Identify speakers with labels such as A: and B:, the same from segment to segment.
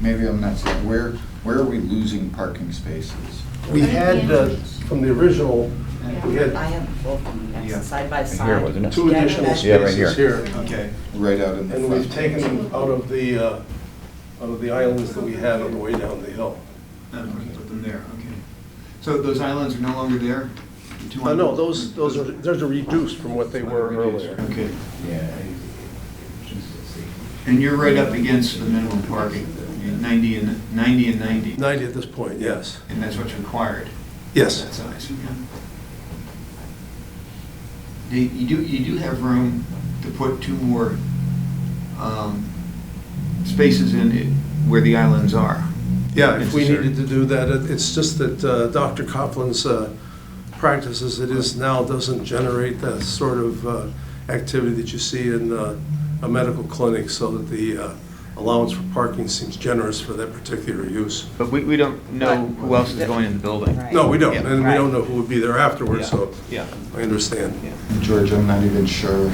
A: maybe I'm not saying, where, where are we losing parking spaces?
B: We had, uh, from the original, we
C: I
B: had
C: have both of them next
A: Yeah.
C: to side by side.
D: Here, wasn't it?
B: two
C: Yeah,
B: additional
C: that's-
D: Yeah, right
B: spaces here,
A: Okay, right out in the
B: and
A: front.
B: we've taken them out of the, uh, out of the islands that we had on the way down the hill.
E: Then we can put them there, okay. So those islands are no longer there? The two
B: Uh, No,
E: on-
B: those, those are, those are reduced from what they were earlier.
E: Okay,
A: Yeah.
E: and you're right up against the minimum parking, you know, 90 and, 90 and 90,
B: 90 at this point, yes.
E: and that's what's required,
B: Yes.
E: that size, yeah. They- You do, you do have room to put two more um, spaces in it where the islands are.
B: Yeah, if we
E: Necessary.
B: needed to do that, it- it's just that uh, Dr. Copeland's uh, practice as it is now doesn't generate the sort of uh, activity that you see in uh, a medical clinic, so that the uh, allowance for parking seems generous for that particular use.
F: But we, we don't know who else is going in the building.
C: Right.
B: No, we don't, and we
C: Right.
B: don't know who would be there afterwards,
F: Yeah.
B: so
F: Yeah.
B: I understand.
A: George, I'm not even sure,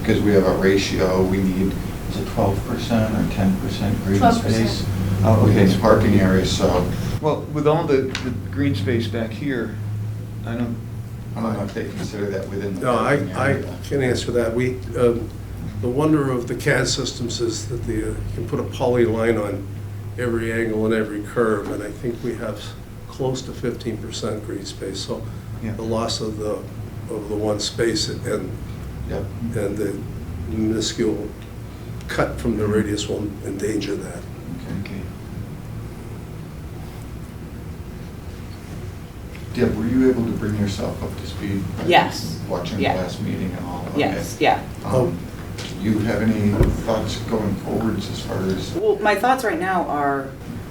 A: because we have a ratio, we need, is it 12% or 10% green
C: 12%.
A: space? Oh, okay, it's parking areas, so
E: Well, with all the, the green space back here, I don't,
A: I don't know if they consider that within the
B: No, I,
A: parking
B: I
A: area.
B: can answer that. We, um, the wonder of the CAD systems is that the, uh, you can put a polyline on every angle and every curve, and I think we have close to fifteen percent green space, so
E: Yeah.
B: the loss of the, of the one space and,
A: Yep.
B: and the minuscule cut from the radius will endanger that.
E: okay.
A: Deb, were you able to bring yourself up to speed? by
C: Yes.
A: Watching the
C: Yeah.
A: last meeting and all? Okay.
C: Yes, yeah.
B: Oh.
A: Um, Do you have any thoughts going forwards as far as?
C: Well, my thoughts right now are,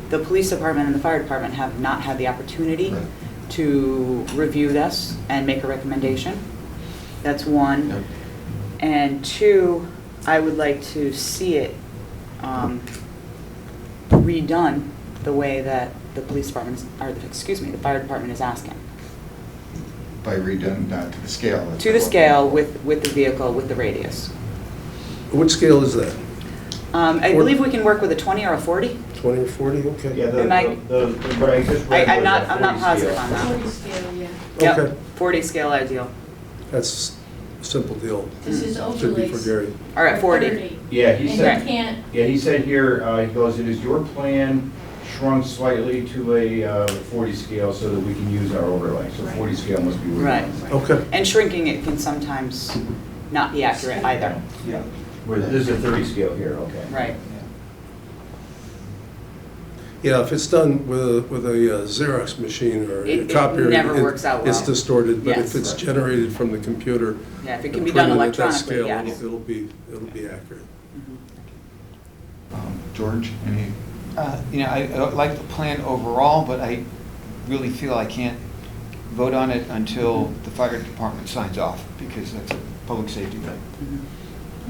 C: the police department and the fire department have not had the opportunity
A: Right.
C: to review this and make a recommendation. That's one.
A: Yep.
C: And two, I would like to see it um, redone the way that the police department, is- or, excuse me, the fire department is asking.
A: By redone, not to the scale? that's
C: To the
A: what-
C: scale with, with the vehicle, with the radius.
B: What scale is that?
C: Um, I
B: Or-
C: believe we can work with a 20 or a 40.
B: Twenty or forty? Okay.
G: Yeah, the,
C: Am I-
G: the, the- what I just
C: I-
G: read
C: I'm
G: was
C: not,
G: a
C: I'm not
G: 40
C: positive
G: scale.
C: on that.
H: Forty scale, yeah.
B: Okay.
C: Yep, 40 scale ideal.
B: That's a simple deal.
H: This is
B: Hmm. Should be for
H: overlays.
B: Gary.
C: All right, 40.
H: 30.
G: Yeah, he
H: And you
G: said,
H: can't,
G: yeah, he said here, uh, he goes, it is your plan shrunk slightly to a, uh, forty scale so that we can use our overlay, so forty scale must be.
C: Right.
B: Okay.
C: And shrinking it can sometimes not be accurate either.
G: Yeah, where, this is a thirty scale here, okay.
C: Right.
B: Yeah, if it's done with, a- with a uh, Xerox machine or
C: It-
B: a
C: it
B: copier.
C: never works out
B: It's
C: well.
B: distorted, but
C: Yes.
B: if it's generated from the computer.
C: Yeah, if it
B: and
C: can be done
B: printed at that
C: electronically,
B: scale,
C: yes. Mm-hmm.
B: it'll- It'll be, it'll be accurate.
A: Um, George, any?
E: Uh, You know, I I like the plan overall, but I really feel I can't vote on it until
B: Mm-hmm.
E: the fire department signs off, because that's a public safety thing.
C: Mhm.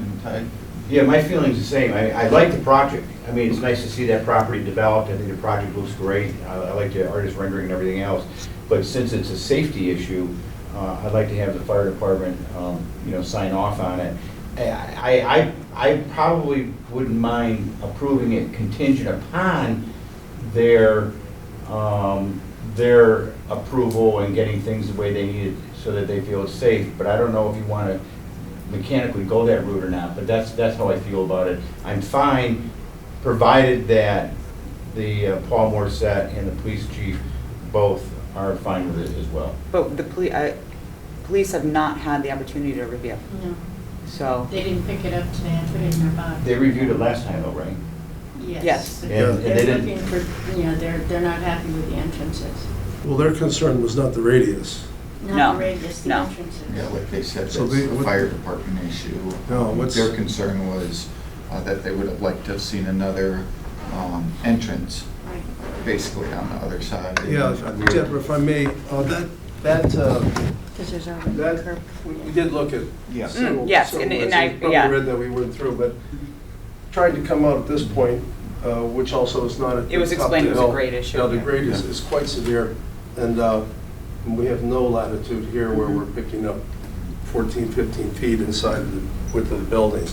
A: any type?
G: Yeah, my feeling's the same. I, I like the project. I mean, it's nice to see that property developed. I think the project looks great. I, I like the artist rendering and everything else. But since it's a safety issue, uh, I'd like to have the fire department, um, you know, sign off on it. I, I, I I probably wouldn't mind approving it contingent upon their, um, their approval and getting things the way they need it so that they feel it's safe. But I don't know if you want to mechanically go that route or not, but that's, that's how I feel about it. I'm fine, provided that the uh, Paul Morissette and the police chief both are fine with it as well.
C: But the poli, uh, police have not had the opportunity to review,
H: no,
C: so,
H: they didn't pick it up today and put it in their box.
G: They reviewed it last time though, right?
H: Yes.
C: Yes.
H: but
G: Yeah, and they
H: They're
G: didn't-
H: looking for, you know, they're, they're not happy with the entrances.
B: Well, their concern was not the radius.
C: No,
H: Not the radius, the
C: no.
H: entrances.
A: Yeah, like they said, that's
B: So they-
A: a
B: what-
A: fire department issue.
B: No,
A: Um,
B: what's-
A: Their concern was uh, that they would have liked to have seen another um, entrance,
H: Right.
A: basically on the other side.
B: Yeah,
A: And we-
B: if- Deborah, if I may, uh, that, that, uh,
H: Because there's already a
B: that,
H: curb.
B: we we did look at
E: Yeah.
B: several-
C: Mm, yes,
B: several
C: and- and
B: ways. You
C: I- yeah.
B: Probably read that we went through, but tried to come out at this point, uh, which also is not at the top of the
C: It was explained it was a
B: hill.
C: grade issue.
B: Now, the grade is,
A: Yeah.
B: is quite severe, and uh, we have no latitude here where we're picking up 14, 15 feet inside the width of the building.